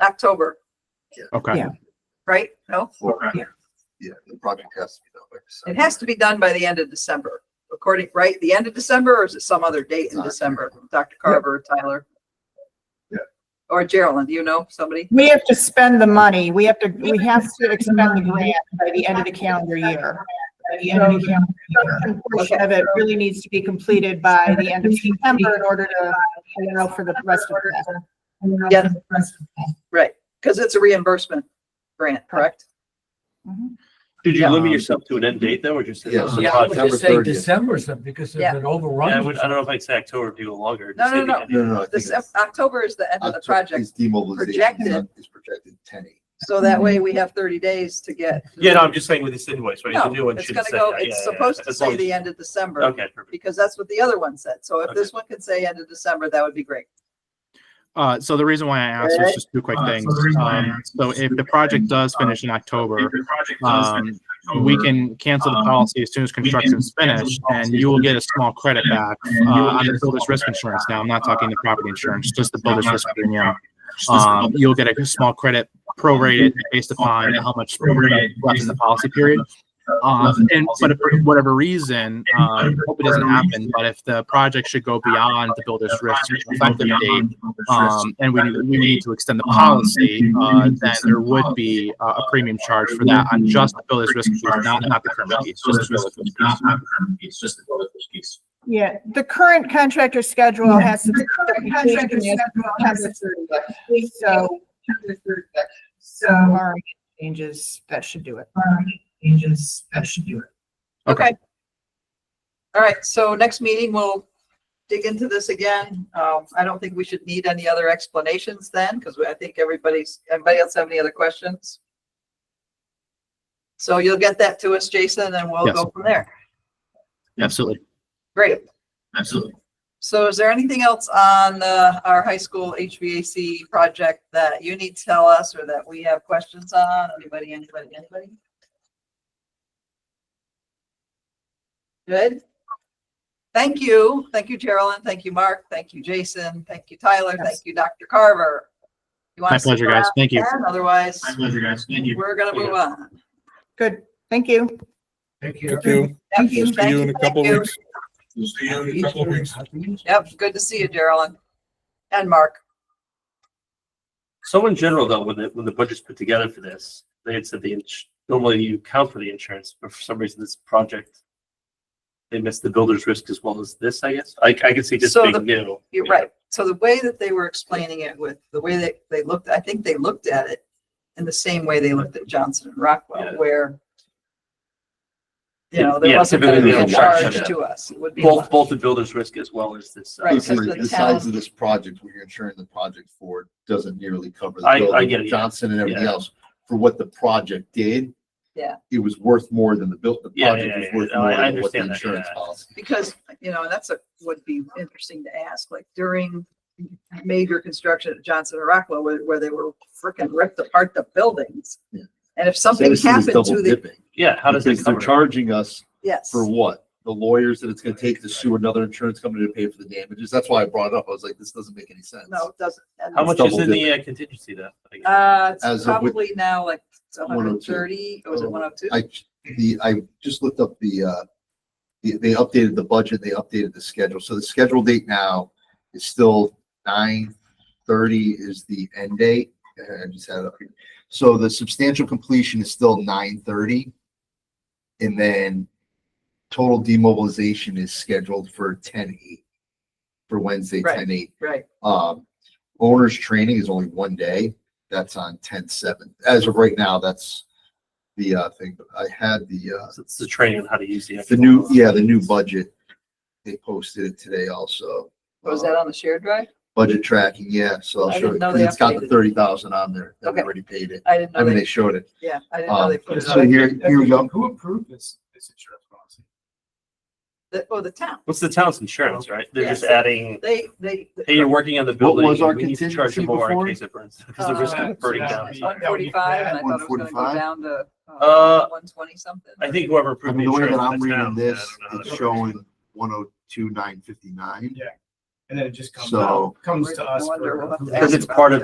October, Okay. Yeah. right? No, Okay. Yeah, the project has to be done. by it December. has to be done by the end of December, according, right? The end of December or is it some other date in December? Dr. Carver, Tyler? Yeah. Or Geraldine, do you know somebody? We have to spend the money. We have to, we have to expend the grant by the end of the calendar year. By the end of the calendar year. Portion of it really needs to be completed by the end of September in order to allow for the rest of the. Yeah. Right, because it's a reimbursement grant, correct? Mm-hmm. Did you Yeah. limit yourself to an end date though, or just? Yeah. Uh, Yeah, I was September just saying 30th. December or something, because Yeah. there's yeah, been I overrun. would, I don't know if I'd say October, people longer. No, just no, say the no. end. No, no, no. I think This, it's- October is the end of the October project, is Demobilization is projected. on- is projected ten eight. so that way we have thirty days to get. Yeah, no, I'm just saying with this invoice, right? The new No, one it's should gonna say go, that, yeah, it's yeah, yeah, supposed to as long say as- the end of December, Okay, perfect. because that's what the other one said. So if Okay. this one could say end of December, that would be great. Uh, so the reason why I asked was just two quick things. Um, so if the project does finish in October, um, we can cancel the policy as soon as construction's finished and you will get a small credit back, uh, on the builder's risk insurance. Now, I'm not talking the property insurance, just the builder's risk premium. Um, you'll get a small credit prorated based upon how much left in the policy period. Um, and, but if for whatever reason, um, hope it doesn't happen, but if the project should go beyond the builder's risk effective date, um, and we, we need to extend the policy, uh, then there would be a, a premium charge for that on just the builder's risk, not, not the criminal piece, just the builder's risk. Yeah, the current contractor schedule has. to- the contractor schedule has to- So. So. Changes, that should do it. Changes, that should do it. Okay. Okay. All right, so next meeting, we'll dig into this again. Um, I don't think we should need any other explanations then, because I think everybody's, anybody else have any other questions? So you'll get that to us, Jason, and we'll Yes. go from there. Absolutely. Great. Absolutely. So is there anything else on uh, our high school HVAC project that you need to tell us or that we have questions on? Anybody, anybody, anybody? Good. Thank you. Thank you, Geraldine. Thank you, Mark. Thank you, Jason. Thank you, Tyler. Yes. Thank you, Dr. Carver. You wanna My pleasure, stick guys. around, Thank you. Ken? Otherwise, pleasure, guys. Thank we're gonna move on. Good, thank you. Thank Thank you. Yep, We'll see thank you in a thank couple you. weeks. We'll see you in a couple weeks. Yep, good to see you, Geraldine. And Mark. So in general though, when the, when the budget's put together for this, they had said the, ins- normally you count for the insurance, but for some reason this project, they missed the builder's risk as well as this, I guess. I, I can see just So being the- new. You're Yeah. right. So the way that they were explaining it with the way that they looked, I think they looked at it in the same way they looked at Johnson and Rockwell, Yeah. where you know, there Yeah, wasn't going to typically be a they'll charge charge that. to us. It would be, Both, both the builder's risk as well as this. uh, Right, This because is- the The size town- of this project, what you're insuring the project for, doesn't nearly cover. the I- I building, get it, yeah. Johnson and everything Yeah. else, for what the project did. Yeah. It was worth more than the built, the Yeah, yeah, project was yeah, worth yeah. No, more I- I than what the understand that, insurance yeah. policy. because, you know, and that's a, would be interesting to ask, like during major construction at Johnson and Rockwell, where, where they were freaking ripped apart the buildings. Yeah. And if So something this is happened double to the, dipping. Yeah, how does it Because they're cover? it? charging us yes, for what? The lawyers that it's gonna take to sue another insurance company to pay for the damages. That's why I brought it up. I was like, this doesn't make any sense. no, it doesn't. And How it's- much is double in the uh, contingency though? I guess? Uh, it's As of which- probably now like hundred and 102. thirty, was it one oh two? I, the, I just looked up the, uh, the- they updated the budget, they updated the schedule. So the schedule date now is still nine thirty is the end date. Uh, I just had it up here. So the substantial completion is still nine thirty. And then total demobilization is scheduled for ten eight, for Wednesday, Right. ten eight. Right, Um, owner's training is only one day. That's on ten seven. As of right now, that's the, uh, thing. But I had the, uh, So It's the training on how to use the. the actual- new, yeah, the new budget. They posted it today also. was Uh, Oh, that on the shared drive? Budget tracking, yeah, so I'll I show didn't you, know 'cause they it's got the updated. thirty thousand on there, that we Okay. already paid it, I didn't I know mean, they, they showed it. yeah, I didn't know Um, they put it so on. here, here we go, Who approved this, this insurance policy? The- Oh, the town, What's the town's insurance, right? They're just Yes. adding, they, they. hey, you're working on the What building. was our we need to charge contingency you more in before? case it burns, because the risk Uh, of burning down. yeah. One forty-five, and I thought it was gonna go 145? down to, uh, Uh, one twenty something. I think whoever I approved the mean, the way insurance. that in I'm the reading town, this, I don't know. it's showing one oh two, nine fifty-nine. And then it just comes So- out, comes to us. I wonder, for we'll have to approval. ask Because it's part of